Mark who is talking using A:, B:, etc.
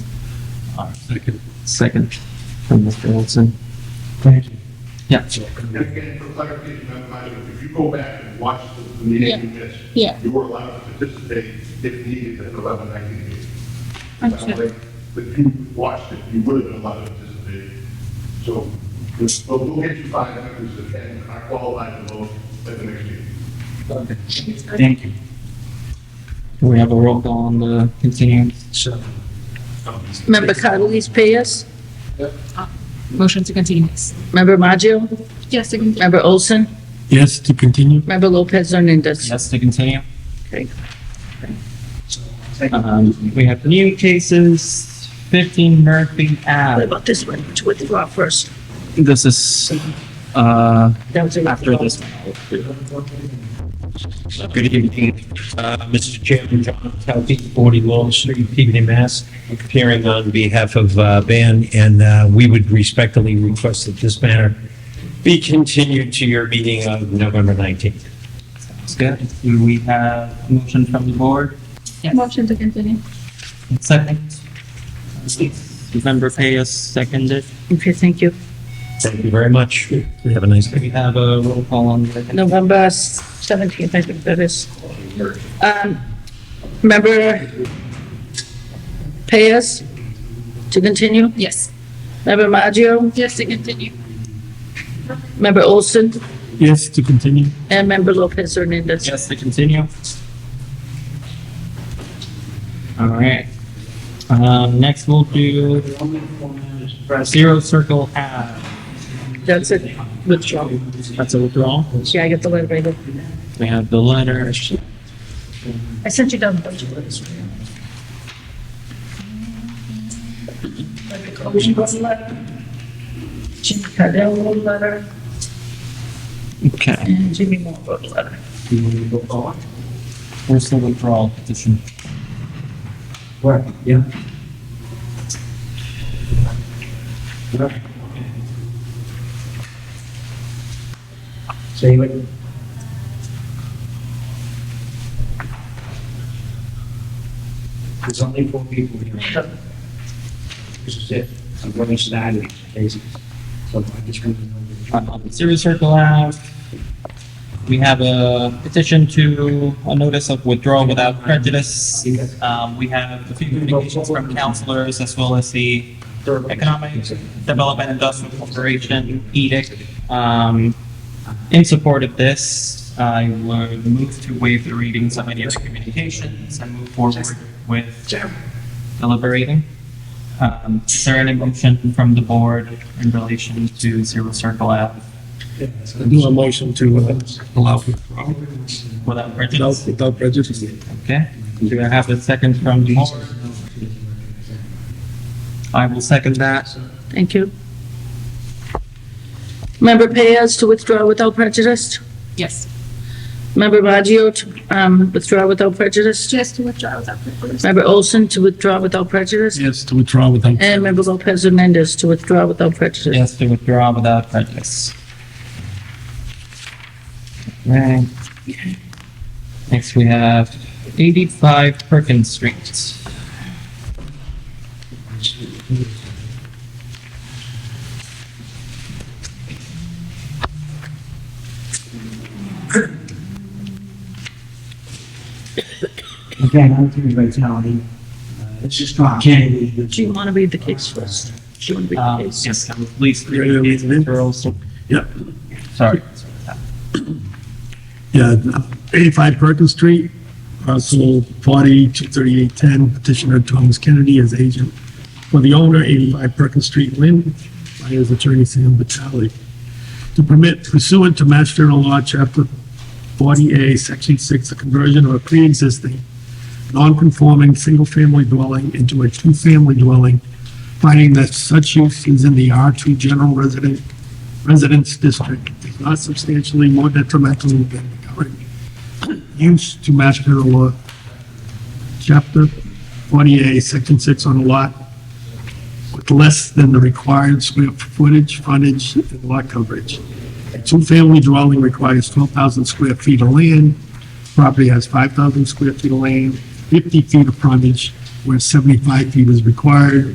A: Second.
B: Second from Mr. Olson.
A: Thank you.
B: Yeah.
C: And again, for clarification, Madam President, if you go back and watch the meeting you missed,
D: Yeah.
C: you were allowed to participate if needed at 11:19 meeting.
D: I'm
C: That
D: sure.
C: way, If you watched it, you would have been allowed to participate. So we'll, we'll get you five members that can, are qualified to vote at the next meeting.
A: Thank you.
B: Can we have a roll call on the continuance?
A: So.
D: Member Cardellis Reyes?
C: Yep.
D: Motion to continue. Member Maggio? Yes, to continue. Member Olson?
A: Yes, to continue.
D: Member Lopez Hernandez?
B: Yes, to continue.
D: Okay.
B: Um, we have new cases, fifteen Murphy
D: What
B: Ave.
D: about this one? To withdraw first.
B: This is, uh,
D: That was a
B: after
D: withdrawal.
B: this.
E: Good evening, uh, Mr. Chairman, John Talke, 40 Long Street, Peabody, Mass. Appearing on behalf of uh, Ban, and uh, we would respectfully request that this matter be continued to your meeting of November 19th.
B: Sounds good. Do we have a motion from the board?
F: Motion to continue.
B: Second. Member Payas seconded.
D: Okay, thank you.
E: Thank you very much. Have a nice
B: Do
E: day.
B: we have a roll call on the?
D: November seventeenth, I think that is. Um, member Reyes? To continue?
F: Yes.
D: Member Maggio?
F: Yes, to continue.
D: Member Olson?
A: Yes, to continue.
D: And member Lopez Hernandez?
B: Yes, to continue. All right. Um, next we'll do Zero Circle Ave.
D: That's it, withdrawal.
B: That's a withdrawal.
D: Yeah, I get the letter right here.
B: We have the letter.
D: I sent you down the budget. Like the Cohesion Bus letter, Jimmy Cardell wrote a letter,
B: Okay.
D: and Jimmy Moore wrote a letter.
B: Where's the withdrawal petition?
E: Right, yeah. Say what? There's only four people here. This is it. I'm going to start it, basically. So I just want to know.
B: on- on Um, Zero Circle Ave. We have a petition to a notice of withdrawal without prejudice. Um, we have a few communications from counselors as well as the Economic Development Industrial Corporation edict, um, in support of this. I would move to waive the readings of any of the communications and move forward with deliberating. Um, is there any motion from the board in relation to Zero Circle Ave?
A: Do a motion to uh, allow withdrawal
B: Without
A: without,
B: prejudice,
A: without prejudice.
B: okay? Do I have a second from the board? I will second that.
D: Thank you. Member Payas to withdraw without prejudice.
F: Yes.
D: Member Baggio to, um, withdraw without prejudice.
F: Yes, to withdraw without prejudice.
D: Member Olson to withdraw without prejudice.
A: Yes, to withdraw without.
D: And member Lopez Hernandez to withdraw without prejudice.
B: Yes, to withdraw without prejudice. Right. Next, we have eighty-five Perkins Street.
G: Again, I'm through vitality. Uh, It's just not candy. It's
D: Do you want to read the case first? Do you want to read
B: Um,
D: the case?
B: yes, at least
A: Yeah, yeah,
B: three
A: leave it in.
B: girls.
A: Yep.
B: Sorry.
A: Yeah, 85 Perkins Street, parcel 40, 23810, petitioner Thomas Kennedy as agent for the owner, 85 Perkins Street, Lynn, by his attorney Sam Vitale, to permit pursuant to Mass General Law, Chapter 40A, Section 6, the conversion of a pre-existing, non-conforming, single-family dwelling into a two-family dwelling, finding that such use is in the R2 general resident residence district is not substantially more detrimental than the current use to Mass General Law, Chapter 48, Section 6 on a lot with less than the required square footage, frontage, and lot coverage. A two-family dwelling requires 12,000 square feet of land. Property has 5,000 square feet of land, 50 feet of frontage, where 75 feet is required,